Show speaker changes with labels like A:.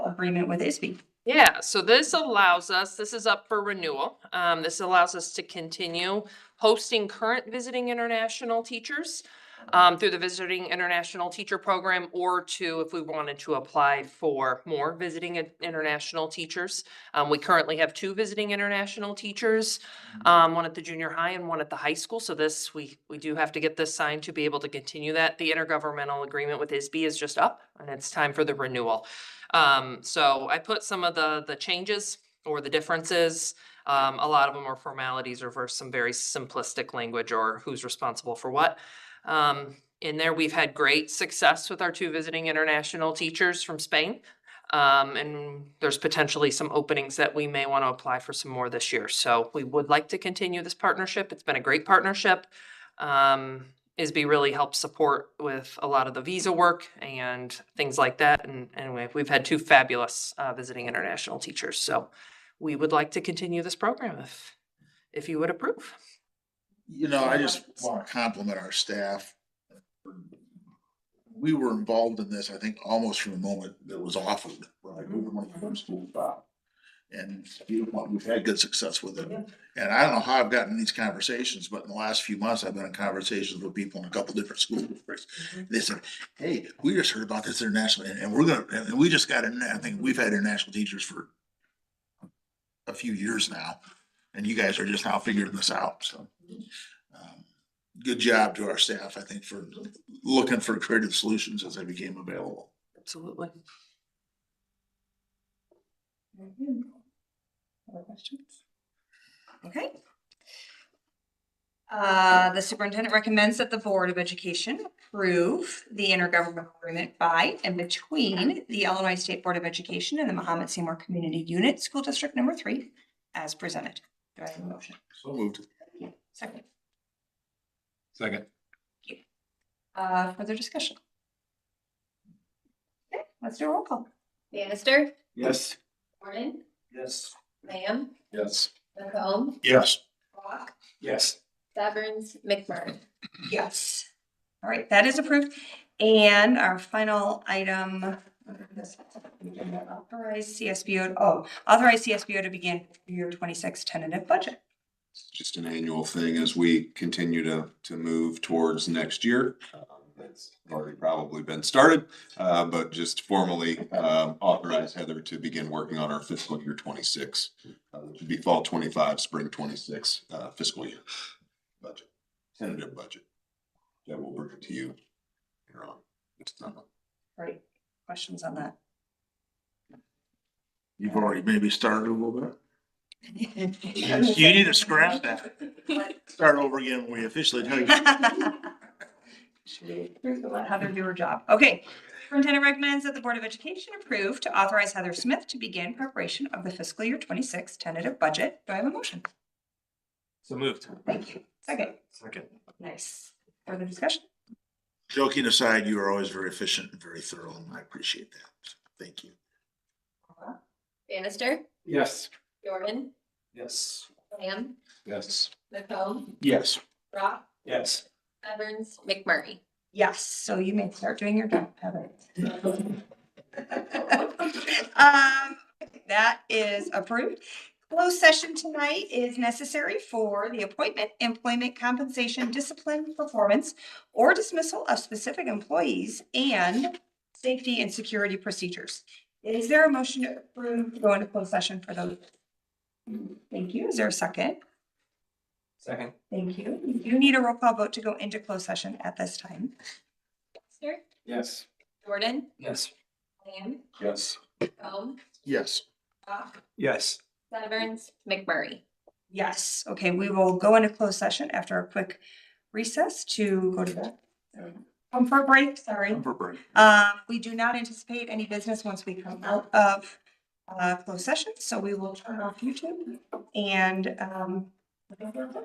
A: agreement with ISB.
B: Yeah, so this allows us, this is up for renewal. Um, this allows us to continue hosting current visiting international teachers um, through the Visiting International Teacher Program or to, if we wanted to apply for more visiting in- international teachers. Um, we currently have two visiting international teachers, um, one at the junior high and one at the high school. So this, we, we do have to get this signed to be able to continue that. The intergovernmental agreement with ISB is just up and it's time for the renewal. Um, so I put some of the, the changes or the differences. Um, a lot of them are formalities or for some very simplistic language or who's responsible for what. Um, in there, we've had great success with our two visiting international teachers from Spain. Um, and there's potentially some openings that we may want to apply for some more this year. So we would like to continue this partnership. It's been a great partnership. Um, ISB really helps support with a lot of the visa work and things like that. And anyway, we've had two fabulous uh, visiting international teachers. So we would like to continue this program if, if you would approve.
C: You know, I just
B: Yes.
C: want to compliment our staff. We were involved in this, I think, almost from the moment that it was offered, when I moved my first school about. And you know, we've had good success with it. And I don't know how I've gotten these conversations, but in the last few months, I've been in conversations with people in a couple different school districts. They said, hey, we just heard about this international, and- and we're gonna, and and we just got in, I think we've had international teachers for a few years now, and you guys are just now figuring this out, so. um, Good job to our staff, I think, for looking for creative solutions as they became available.
B: Absolutely.
A: Very good. Other questions? Okay. Uh, the superintendent recommends that the Board of Education approve the intergovernmental agreement by and between the Illinois State Board of Education and the Mohammed Seymour Community Unit School District Number Three as presented. Do I have a motion?
C: So moved.
A: Second,
D: Second.
A: uh, further discussion? Okay, let's do a roll call.
E: Bannister,
D: Yes.
E: Mormon,
D: Yes.
E: Lamb,
D: Yes.
E: McComb,
C: Yes.
E: Walk,
D: Yes.
E: Severns, McMurray.
A: Yes. All right, that is approved. And our final item. Authorize CSBO, oh, authorize CSBO to begin year twenty-six tentative budget.
F: It's just an annual thing as we continue to, to move towards next year. Um, That's already probably been started, uh, but just formally, um, authorize Heather to begin working on our fiscal year twenty-six. Uh, which would be fall twenty-five, spring twenty-six, uh, fiscal year budget, tentative budget. That will bring it to you. later on. It's not-
A: Right, questions on that?
C: You've already maybe started a little bit.
A: Yes,
C: You need to scratch that. Start over again when we officially tell you.
A: Should we approve and Let Heather do her job. Okay. Superintendent recommends that the Board of Education approve to authorize Heather Smith to begin preparation of the fiscal year twenty-six tentative budget. Do I have a motion?
D: So moved.
A: Second.
D: Second.
A: Nice. Further discussion?
C: Joking aside, you are always very efficient and very thorough, and I appreciate that. Thank you.
E: Bannister,
D: Yes.
E: Jordan,
D: Yes.
E: Lamb,
D: Yes.
E: McComb,
C: Yes.
E: Rock,
D: Yes.
E: Severns, McMurray.
A: Yes, so you may start doing your job, Heather. Um, that is approved. Closed session tonight is necessary for the appointment, employment, compensation, discipline, performance, or dismissal of specific employees and safety and security procedures. Is there a motion to approve to go into closed session for those? Thank you. Is there a second?
D: Second.
A: Thank you. You need a roll call vote to go into closed session at this time.
E: Bannister,
D: Yes.
E: Jordan,
D: Yes.
E: Lamb,
D: Yes.
E: McComb,
C: Yes.
E: Rock,
D: Yes.
E: Severns, McMurray.
A: Yes, okay, we will go into closed session after a quick recess to go to the comfort break, sorry.
C: Comfort break.
A: Um, we do not anticipate any business once we come out of uh closed session, so we will turn off YouTube and um